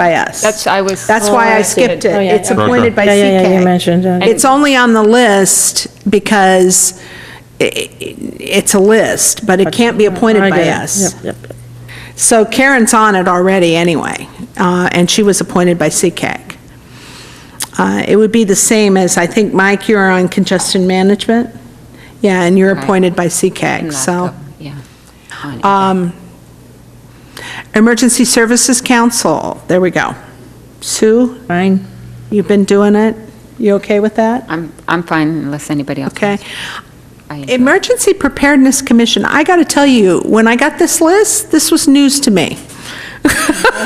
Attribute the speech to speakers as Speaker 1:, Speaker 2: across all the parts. Speaker 1: by us.
Speaker 2: That's- I was-
Speaker 1: That's
Speaker 2: Oh,
Speaker 1: why
Speaker 2: I
Speaker 1: I
Speaker 2: see it.
Speaker 1: skipped it.
Speaker 3: Oh, yeah,
Speaker 1: It's
Speaker 3: okay.
Speaker 1: appointed by CK.
Speaker 3: Yeah, yeah, yeah, you mentioned it.
Speaker 1: It's only on the list because i- i- it's a list, but it can't be appointed
Speaker 3: I
Speaker 1: by
Speaker 3: get it.
Speaker 1: us.
Speaker 3: Yep, yep.
Speaker 1: So Karen's on it already anyway, uh, and she was appointed by CCAG. Uh, It would be the same as, I think, Mike, you're on congestion management? Yeah, and you're
Speaker 2: Right.
Speaker 1: appointed by CCAG,
Speaker 2: And that-
Speaker 1: so. uh,
Speaker 2: Yeah. On-
Speaker 1: Emergency Services Council, there we go. Sue,
Speaker 3: Fine.
Speaker 1: you've been doing it? You okay with that?
Speaker 2: I'm, I'm fine unless anybody else.
Speaker 1: Okay.
Speaker 2: I enjoy it.
Speaker 1: Emergency Preparedness Commission, I got to tell you, when I got this list, this was news to me.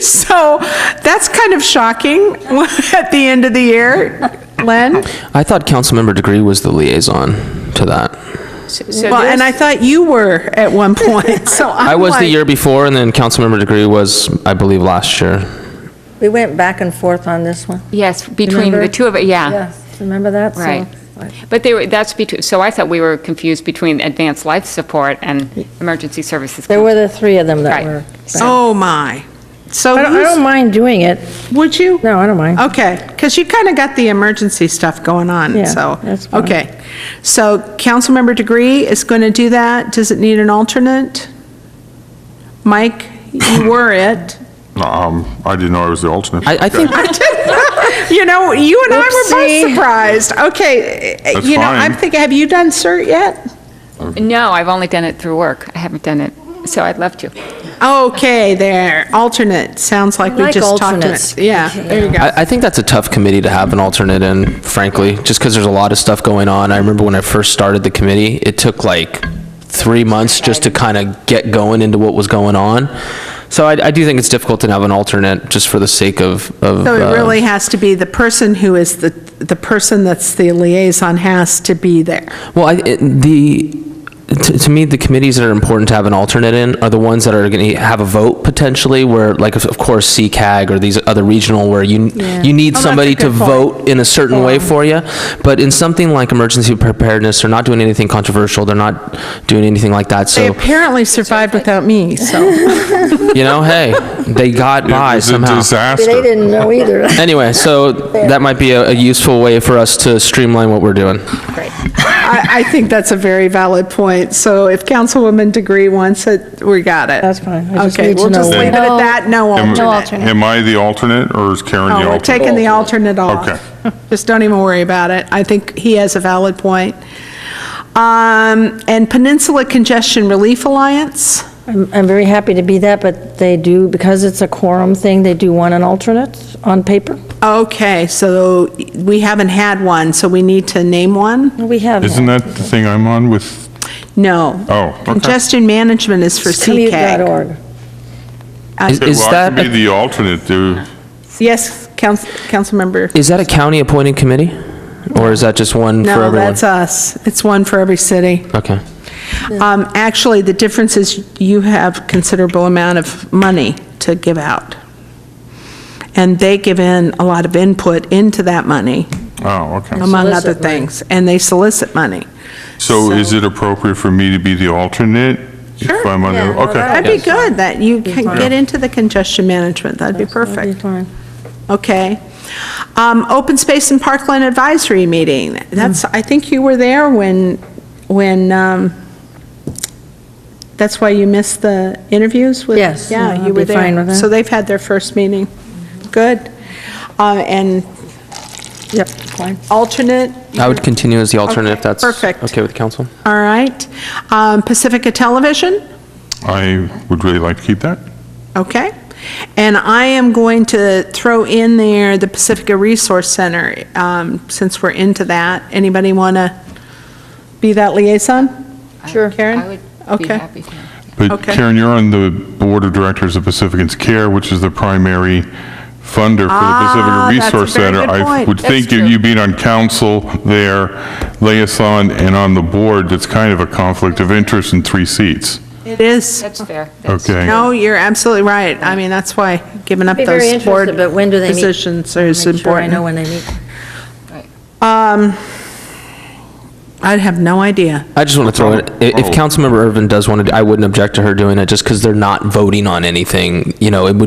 Speaker 1: So that's kind of shocking at the end of the year. Len?
Speaker 4: I thought Councilmember Degree was the liaison to that.
Speaker 1: Well, and I thought you were at one point, so I'm
Speaker 4: I was the
Speaker 1: like-
Speaker 4: year before, and then Councilmember Degree was, I believe, last year.
Speaker 3: We went back and forth on this one.
Speaker 2: Yes, between the
Speaker 3: Remember?
Speaker 2: two of, it, yeah.
Speaker 3: Yes, remember that? So,
Speaker 2: Ah. Right.
Speaker 3: like,
Speaker 2: But they were, that's between, so I thought we were confused between advanced life support and emergency services.
Speaker 3: There were the three of them that
Speaker 2: Right.
Speaker 3: were.
Speaker 1: Oh, my. So
Speaker 3: I don't, I don't
Speaker 1: you,
Speaker 3: mind doing it.
Speaker 1: would you?
Speaker 3: No, I don't mind.
Speaker 1: Okay, because you kind of got the emergency stuff going on,
Speaker 3: Yeah,
Speaker 1: so.
Speaker 3: that's fine.
Speaker 1: Okay, so Councilmember Degree is going to do that. Does it need an alternate? Mike, you were it.
Speaker 5: Um, I didn't know I was the alternate.
Speaker 4: I, I think,
Speaker 1: You know, you and I were
Speaker 3: Oopsie.
Speaker 1: both surprised. Okay, eh,
Speaker 5: That's
Speaker 1: you know, I'm
Speaker 5: fine.
Speaker 1: thinking, have you done CERT yet?
Speaker 2: No, I've only done it through work. I haven't done it, so I'd love to.
Speaker 1: Okay, there, alternate, sounds like we
Speaker 3: like
Speaker 1: just talked to
Speaker 3: alternates.
Speaker 1: it. Yeah, there you go.
Speaker 4: I, I think that's a tough committee to have an alternate in, frankly, just because there's a lot of stuff going on. I remember when I first started the committee, it took like three months just to kind of get going into what was going on. So I, I do think it's difficult to have an alternate just for the sake of, of.
Speaker 1: So
Speaker 4: uh,
Speaker 1: it really has to be the person who is the, the person that's the liaison has to be there.
Speaker 4: Well, I, it- the, to to me, the committees that are important to have an alternate in are the ones that are going to have a vote potentially, where, like, of course, CCAG or these other regional, where you, you
Speaker 1: Oh,
Speaker 4: need
Speaker 1: that's a
Speaker 4: somebody to
Speaker 1: good point.
Speaker 4: vote in a certain way for you. But in something like emergency preparedness, they're not doing anything controversial, they're not doing anything like that,
Speaker 1: They
Speaker 4: so,
Speaker 1: apparently survived without me, so.
Speaker 4: you know, hey, they got by
Speaker 5: It
Speaker 4: somehow.
Speaker 5: was a disaster.
Speaker 3: They didn't know either.
Speaker 4: Anyway, so that might be a a useful way for us to streamline what we're doing.
Speaker 1: I, I think that's a very valid point. So if Councilwoman Degree wants it, we got it.
Speaker 3: That's fine. I just
Speaker 1: Okay,
Speaker 3: need to
Speaker 1: we'll just
Speaker 3: know when.
Speaker 1: leave it at that, no
Speaker 5: Am-
Speaker 1: alternate.
Speaker 5: Am I the alternate, or is Karen the
Speaker 1: No, we're
Speaker 5: alternate?
Speaker 1: taking the alternate off.
Speaker 5: Okay.
Speaker 1: Just don't even worry about it. I think he has a valid point. Um, and Peninsula Congestion Relief Alliance?
Speaker 3: I'm, I'm very happy to be that, but they do, because it's a quorum thing, they do want an alternate on paper.
Speaker 1: Okay, so we haven't had one, so we need to name one?
Speaker 3: We have.
Speaker 5: Oh. Isn't that the thing I'm on with,
Speaker 1: No.
Speaker 5: Oh, okay.
Speaker 1: Congestion Management is for CCAG.
Speaker 3: Commute.org.
Speaker 4: Is
Speaker 5: Okay,
Speaker 4: is
Speaker 5: well, I
Speaker 4: that,
Speaker 5: can be
Speaker 4: a-
Speaker 5: the alternate, dude.
Speaker 1: Yes, Council, Councilmember?
Speaker 4: is that a county-appointed committee? Or is that just one for
Speaker 1: No,
Speaker 4: everyone?
Speaker 1: that's us. It's one for every city.
Speaker 4: Okay.
Speaker 1: Um, Actually, the difference is you have considerable amount of money to give out. And they give in a lot of input into that money,
Speaker 5: Oh, okay.
Speaker 1: among other
Speaker 3: Solicit money.
Speaker 1: things. And they solicit money.
Speaker 5: So is it appropriate for me to be the alternate? If I'm on
Speaker 3: Yeah,
Speaker 5: the,
Speaker 3: no,
Speaker 5: okay.
Speaker 1: That'd be good, that you can get into the congestion management. That'd be perfect.
Speaker 3: That'd be fine.
Speaker 1: Okay. Um, Open Space and Parkland Advisory Meeting, that's, I think you were there when, when, um, that's why you missed the interviews with?
Speaker 3: Yes, yeah,
Speaker 1: Yeah, you
Speaker 3: I'd
Speaker 1: were
Speaker 3: be
Speaker 1: there.
Speaker 3: fine with that.
Speaker 1: So they've had their first meeting. Good. Uh, And
Speaker 3: Yep, fine.
Speaker 1: alternate,
Speaker 4: I would continue as the alternate
Speaker 1: Okay,
Speaker 4: if that's
Speaker 1: perfect.
Speaker 4: okay with council.
Speaker 1: all right. Um, Pacifica Television?
Speaker 5: I would really like to keep that.
Speaker 1: Okay. And I am going to throw in there the Pacifica Resource Center, um, since we're into that. Anybody want to be that liaison?
Speaker 2: Sure. I
Speaker 1: Karen?
Speaker 2: would be
Speaker 1: Okay.
Speaker 2: happy to.
Speaker 5: But
Speaker 1: Okay.
Speaker 5: Karen, you're on the Board of Directors of Pacificans Care, which is the primary funder
Speaker 1: Ah, that's a
Speaker 5: for the Pacifica Resource
Speaker 1: very
Speaker 5: Center.
Speaker 1: good
Speaker 5: I
Speaker 1: point.
Speaker 5: would
Speaker 2: That's
Speaker 5: think you-
Speaker 2: true.
Speaker 5: you being on council there, liaison, and on the board, that's kind of a conflict of interest in three seats.
Speaker 1: It is.
Speaker 2: That's fair. That's-
Speaker 5: Okay.
Speaker 1: No, you're absolutely right. I mean, that's why giving up
Speaker 3: Be very
Speaker 1: those board
Speaker 3: interested, but when do they meet?
Speaker 1: positions is
Speaker 3: Make sure I
Speaker 1: important.
Speaker 3: know when they meet.
Speaker 1: I'd have no idea.
Speaker 4: I just want to throw it, i- if
Speaker 5: Oh.
Speaker 4: Councilmember Irvin does want to, I wouldn't object to her doing it, just because they're not voting on anything, you know, it would